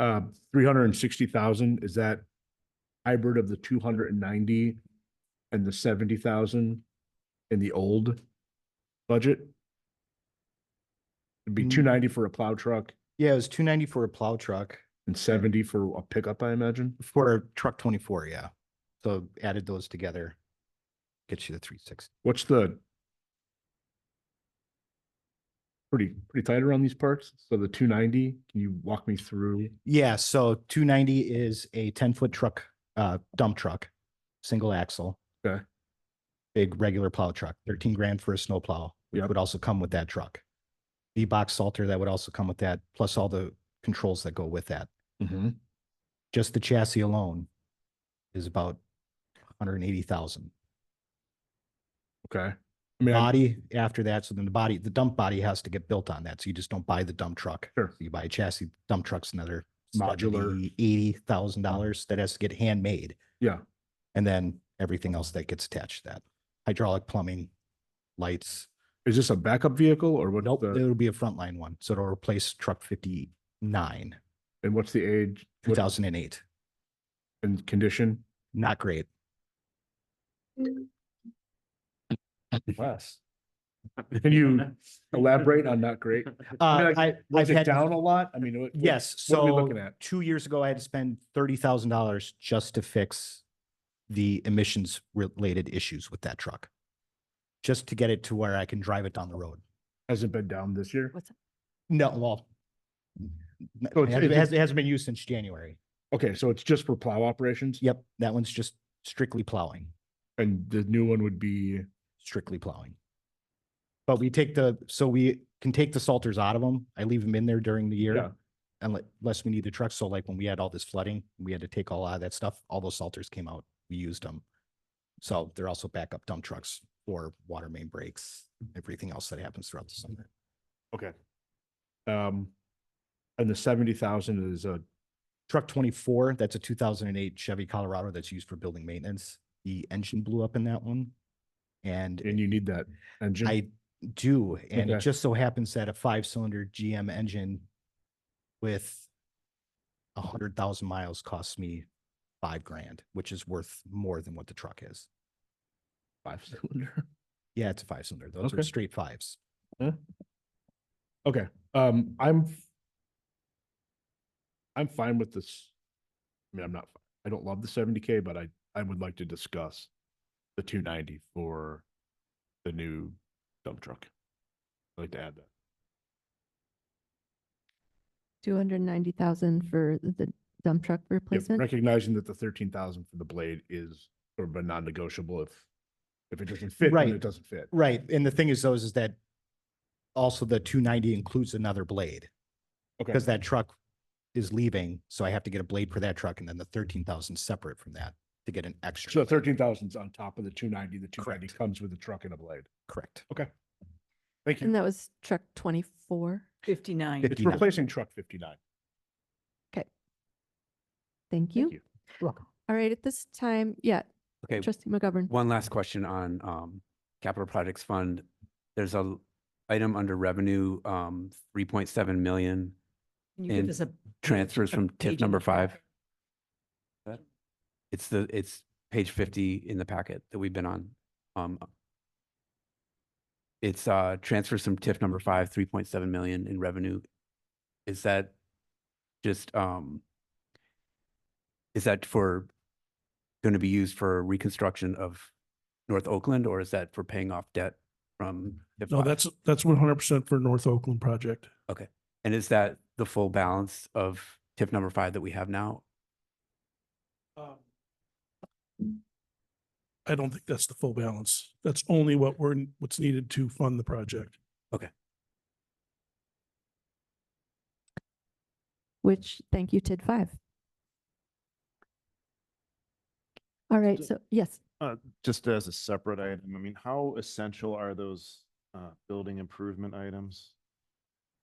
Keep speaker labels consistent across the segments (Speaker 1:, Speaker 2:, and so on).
Speaker 1: uh, three hundred and sixty thousand, is that hybrid of the two hundred and ninety and the seventy thousand in the old budget? It'd be
Speaker 2: Mm.
Speaker 1: two ninety for a plow truck
Speaker 2: Yeah, it was two ninety for a plow truck
Speaker 1: and seventy for a pickup, I imagine.
Speaker 2: for truck twenty-four, yeah. So added those together. Gets you the three sixty.
Speaker 1: What's the pretty, pretty tight around these parts? So the two ninety, can you walk me through?
Speaker 2: Yeah, so two ninety is a ten-foot truck, uh, dump truck, single axle.
Speaker 1: Okay.
Speaker 2: Big regular plow truck, thirteen grand for a snow plow, which
Speaker 1: Yep.
Speaker 2: would also come with that truck. The box salter that would also come with that, plus all the controls that go with that. Mm-hmm. Just the chassis alone is about hundred and eighty thousand.
Speaker 1: Okay. I mean, I-
Speaker 2: body after that. So then the body, the dump body has to get built on that. So you just don't buy the dump truck.
Speaker 1: Sure.
Speaker 2: You buy a chassis, dump truck's another
Speaker 1: Modular.
Speaker 2: eighty thousand dollars that has to get handmade.
Speaker 1: yeah,
Speaker 2: And then everything else that gets attached to that. Hydraulic plumbing, lights.
Speaker 1: is this a backup vehicle or what?
Speaker 2: Nope, it'll be a frontline one. So it'll replace truck fifty-nine,
Speaker 1: And what's the age?
Speaker 2: two
Speaker 1: what-
Speaker 2: thousand and eight.
Speaker 1: And condition?
Speaker 2: Not great.
Speaker 1: Less. Can you elaborate on not great? I
Speaker 2: Uh,
Speaker 1: mean, like,
Speaker 2: I, I've
Speaker 1: Was it
Speaker 2: had,
Speaker 1: down a lot? I mean, what? what-
Speaker 2: yes,
Speaker 1: What are we
Speaker 2: so
Speaker 1: looking at?
Speaker 2: two years ago, I had to spend thirty thousand dollars just to fix the emissions related issues with that truck. Just to get it to where I can drive it down the road.
Speaker 1: Has it been down this year?
Speaker 2: No, well. n-
Speaker 1: So
Speaker 2: Mm.
Speaker 1: it's-
Speaker 2: It hasn't- it
Speaker 1: it's-
Speaker 2: hasn't, it hasn't been used since January.
Speaker 1: Okay, so it's just for plow operations?
Speaker 2: Yep, that one's just strictly plowing,
Speaker 1: And the new one would be,
Speaker 2: strictly plowing. But we take the, so we can take the salters out of them. I leave them in there during the
Speaker 1: Yeah.
Speaker 2: year. unle- Unless we need the truck. So like when we had all this flooding, we had to take all out of that stuff. All those salters came out. We used them. So they're also backup dump trucks for water main breaks, everything else that happens throughout the summer.
Speaker 1: okay. Um, and the seventy thousand is a,
Speaker 2: Truck twenty-four, that's a two thousand and eight Chevy Colorado that's used for building maintenance. The engine blew up in that one. And
Speaker 1: and you need that engine?
Speaker 2: I do, and it
Speaker 1: Okay.
Speaker 2: just so happens that a five-cylinder GM engine with a hundred thousand miles costs me five grand, which is worth more than what the truck is.
Speaker 1: Five cylinder.
Speaker 2: Yeah, it's a five-cylinder. Those
Speaker 1: Okay.
Speaker 2: are straight fives.
Speaker 1: Okay, um, I'm f- I'm fine with this. I mean, I'm not, I don't love the seventy K, but I, I would like to discuss the two ninety for the new dump truck. I'd like to add that.
Speaker 3: Two hundred and ninety thousand for the dump truck
Speaker 1: Yeah,
Speaker 3: replacement?
Speaker 1: Recognizing that the thirteen thousand for the blade is sort of a non-negotiable if, if it doesn't fit, then
Speaker 2: Right.
Speaker 1: it doesn't fit.
Speaker 2: Right, and the thing is though, is that also the two ninety includes another blade.
Speaker 1: Okay.
Speaker 2: Because that truck is leaving, so I have to get a blade for that truck and then the thirteen thousand separate from that to get an extra.
Speaker 1: So
Speaker 2: blade.
Speaker 1: thirteen thousand's on top of the two ninety, the two ninety
Speaker 2: Correct.
Speaker 1: comes with a truck and a blade.
Speaker 2: Correct.
Speaker 1: Thank you.
Speaker 3: And that was truck twenty-four?
Speaker 2: Fif-
Speaker 4: Fifty-nine.
Speaker 1: It's
Speaker 2: 59.
Speaker 1: replacing truck fifty-nine.
Speaker 3: Thank
Speaker 1: Thank
Speaker 3: you.
Speaker 1: you.
Speaker 3: All right, at this time, yeah,
Speaker 5: Okay,
Speaker 3: trustee McGovern.
Speaker 5: one last question on um capital projects fund. There's a l- item under revenue, um, three point seven million
Speaker 4: Can you give
Speaker 5: And
Speaker 4: us a
Speaker 5: transfers
Speaker 4: a
Speaker 5: from
Speaker 4: page in
Speaker 5: TIF number
Speaker 4: the packet?
Speaker 5: five. That- It's the, it's page fifty in the packet that we've been on. Um, It's uh transfers from TIF number five, three point seven million in revenue. Is that just um is that for going to be used for reconstruction of North Oakland or is that for paying off debt from? TIF
Speaker 6: No,
Speaker 5: five?
Speaker 6: that's, that's one hundred percent for North Oakland project.
Speaker 5: And is that the full balance of TIF number five that we have now?
Speaker 6: I don't think that's the full balance. That's only what we're, what's needed to fund the project.
Speaker 3: Which, thank you, TID five. All right, so, yes,
Speaker 7: just as a separate item, I mean, how essential are those uh, building improvement items?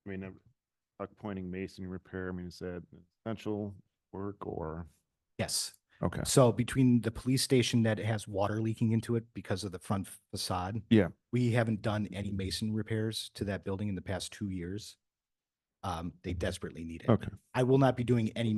Speaker 7: I mean, uh, like pointing masonry repair, I mean, is that essential work or?
Speaker 2: Yes.
Speaker 7: Okay.
Speaker 2: So between the police station that has water leaking into it because of the front facade.
Speaker 7: Yeah.
Speaker 2: We haven't done any mason repairs to that building in the past two years. Um, they desperately need it.
Speaker 7: Okay.
Speaker 2: I will not be doing any